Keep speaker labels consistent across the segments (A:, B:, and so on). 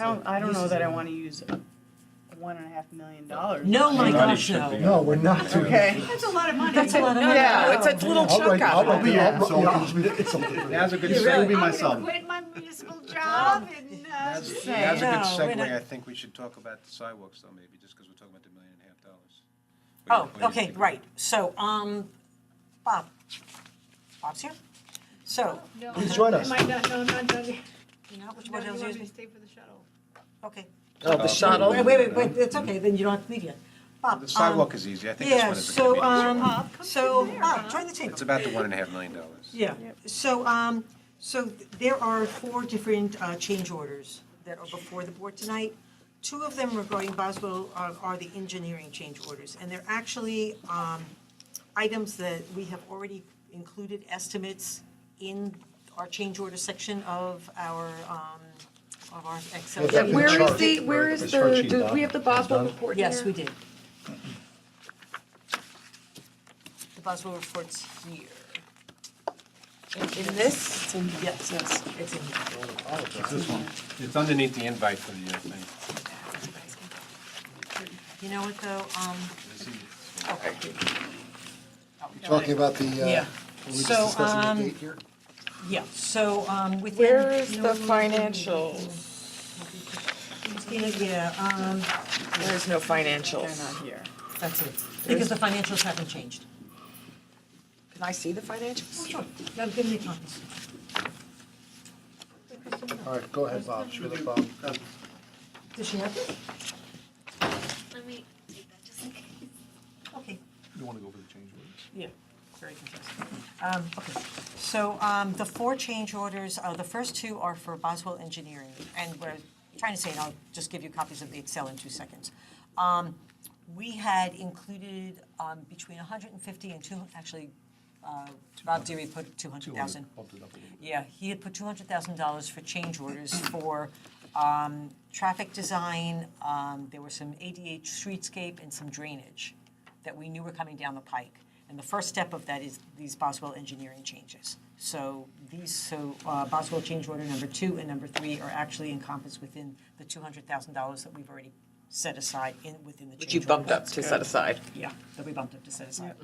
A: don't, I don't
B: This
A: know
B: is
A: that I
B: a-
A: wanna use uh, one and a half million dollars.
B: No, my
C: Not
B: gosh,
C: even
B: no.
C: fifty.
D: No, we're not doing
A: Okay.
D: that.
A: That's a lot of money.
B: That's a lot of money.
A: Yeah,
E: it's a little
D: I'll
E: chunk
D: write,
E: out
D: I'll,
E: of
D: I'll
E: it.
D: be, I'll,
F: So-
D: I'll just be, it's something.
F: Now's a good
B: Yeah,
F: segue
B: really.
F: be
G: I'm gonna
F: myself.
G: quit my municipal job and, uh,
F: Now's
A: Say.
F: now's a good
B: No, we're not-
F: segue. I think we should talk about the sidewalks though, maybe, just because we're talking about the million and a half dollars.
B: Oh,
F: What do you- what do you
B: okay,
F: think?
B: right. So, um, Bob. Bob's here? So,
G: no.
D: Please join us.
G: Am I not, no, not done yet.
B: you know, which
G: Oh, No,
B: one
G: you
B: else
G: want me to
B: is-
G: stay for the shuttle?
B: Okay.
E: Oh,
F: Uh,
E: the shuttle.
B: Wait, wait, wait, wait, it's okay, then you don't have to leave yet. Bob.
F: The
B: um,
F: sidewalk is easy. I think
B: Yeah,
F: that's one of the
B: so,
F: convenience.
B: um,
G: Bob, come
B: so,
G: to there,
B: Bob,
G: huh?
B: join the table.
F: It's about the one and a half million dollars.
B: Yeah, so, um, so th- there are four different, uh, change orders that are before the board tonight. Two of them regarding Boswell are, are the engineering change orders, and they're actually, um, items that we have already included estimates in our change order section of our, um, of our Excel.
D: Yeah,
B: sheet.
D: we're-
H: Where is
D: chart.
H: the, where is
D: It's
H: the,
D: spreadsheet
H: do
D: doc.
H: we have the
D: Done.
H: Boswell report here?
B: Yes, we did. The Boswell report's here.
E: In this,
B: Yes, yes, it's in here.
F: It's this one. It's underneath the invite for the uh, thing.
B: You know what, though, um,
F: This is-
B: okay.
D: Talking about the, uh,
B: Yeah.
D: were we just
B: So,
D: discussing the
B: um,
D: date here?
B: Yeah, so, um, within.
E: where is
B: no,
E: the
B: no, no,
E: financials?
B: Yeah, yeah, um,
E: There's no
A: They're
E: financials.
A: not here.
B: that's it, because the financials haven't changed.
E: Oh, Can I see the financials?
B: Sure, no, give me copies.
D: All right, go ahead, Bob. Shoot it, Bob.
B: Does she have it?
G: Let me take that just in case.
B: Okay.
F: You want to go for the change orders?
B: Yeah, very confusing. Um, okay, so, um, the four change orders, uh, the first two are for Boswell Engineering, and we're trying to say, and I'll just give you copies of the Excel in two seconds. Um, we had included, um, between hundred and fifty and two, actually, uh, Rob Deary put two hundred thousand. Yeah, he had put two hundred thousand dollars for change orders for, um, traffic design, um, there were some ADA streetscape and some drainage that we knew were coming down the pike. And the first step of that is these Boswell engineering changes. So these, so uh, Boswell change order number two and number three are actually encompassed within the two hundred thousand dollars that we've already set aside in, within the change
E: Which you bumped
B: orders.
E: up to set aside.
B: Yeah, that we bumped up to set aside.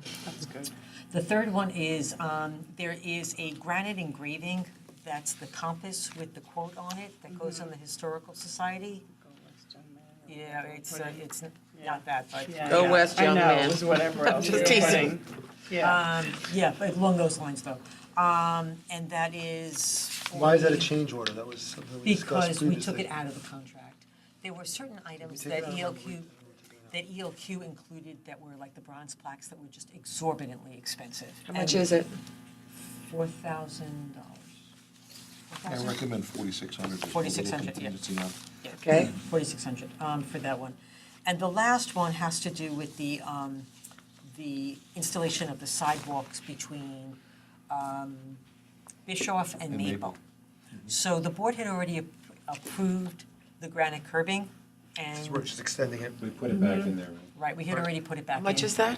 B: The third one is, um, there is a granite engraving, that's the compass with the quote on it that goes on the Historical Society.
A: Go West Young Man or
B: Yeah,
A: whatever.
B: it's,
A: Put
B: uh,
A: it-
B: it's
A: Yeah.
B: not that, but,
A: Yeah,
E: Go
A: yeah.
E: West Young
A: I know,
E: Man.
A: it was whatever else.
E: Just
A: you were
E: teasing.
A: putting. Yeah.
B: um, yeah, but along those lines though. Um, and that is. for
D: Why is that a
B: the-
D: change order? That was something we discussed
B: Because
D: previously.
B: we took it out of the contract. There were certain items
D: take
B: that
D: it out of the-
B: ELQ, that ELQ included that were like the bronze plaques that were just exorbitantly expensive.
E: How much is it?
B: Four thousand dollars.
I: I recommend forty-six hundred.
B: 4,600, yeah.
E: Okay.
B: Forty-six hundred, um, for that one. And the last one has to do with the, um, the installation of the sidewalks between, um, Bischoff and Maple. So the board had already ap- approved the granite curbing and,
D: We're just extending it.
F: We put it back in there, right?
B: right, we had already put it back
E: How
B: in.
E: much is that?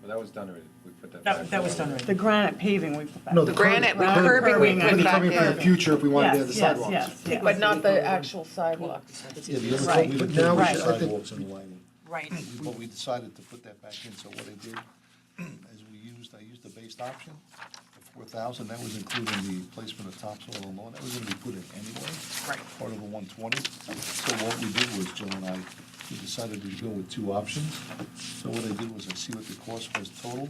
F: Well, that was done already. We put that back.
B: That, that was done
A: The
B: already.
A: granite paving we put back.
D: No,
A: in.
D: the
E: granite,
D: curbing.
E: the curbing we
D: But
E: put
D: the
E: back
D: curbing for
E: in.
D: the future if we wanted to have the
A: Yes, yes,
D: sidewalks.
A: yes, yes.
E: But not the actual sidewalk.
I: Yeah, the other
A: Right.
I: thing, we
D: But
I: looked
D: now we
I: at
A: should-
D: I think-
I: sidewalks and lighting,
B: Right,
I: but we decided to put that back in, so what I did is we used, I used the based option, the four thousand, that was including the placement of topsoil and lawn, that was gonna be put in anyway.
B: Right.
I: Part of the one twenty, so what we did was, Joe and I, we decided to go with two options. So what I did was I see what the cost was total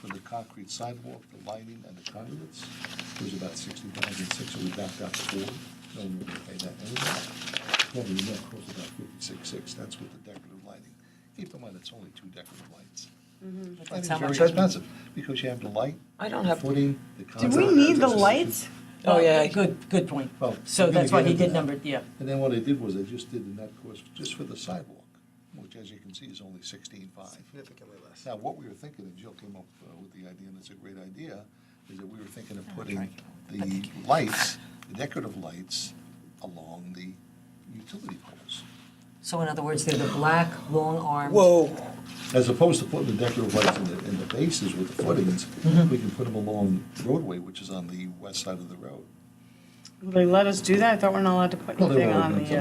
I: for the concrete sidewalk, the lighting, and the conduits, it was about sixty thousand six, so we backed out four, no, we were gonna pay that anyway. Well, the net cost about fifty-six, six, that's with the decorative lighting. Keep in mind, it's only two decorative lights.
B: that's how
I: Lighting's
B: much.
I: Very expensive, because you have the light,
E: I don't
I: the
E: have,
I: footing, the
A: Do
D: Oh,
I: concept.
A: we need the lights?
E: Oh, yeah.
B: Good, good point.
I: Well,
B: So
I: we're gonna
B: that's why
I: get
B: he
I: into
B: did
I: that.
B: number, yeah.
I: And then what I did was I just did the net cost just for the sidewalk, which as you can see is only sixteen-five.
D: Significantly less.
I: Now, what we were thinking, and Jill came up uh, with the idea, and it's a great idea, is that we were thinking of putting the lights, the decorative lights, along the utility poles.
B: So in other words, they're the black, long-armed.
E: whoa.
I: As opposed to putting the decorative lights in the, in the bases with the footings, we can put them along roadway, which is on the west side of the road.
A: Will they let us do that? I thought we're not allowed to put
I: No, they
A: anything
I: won't.
A: on the. uh,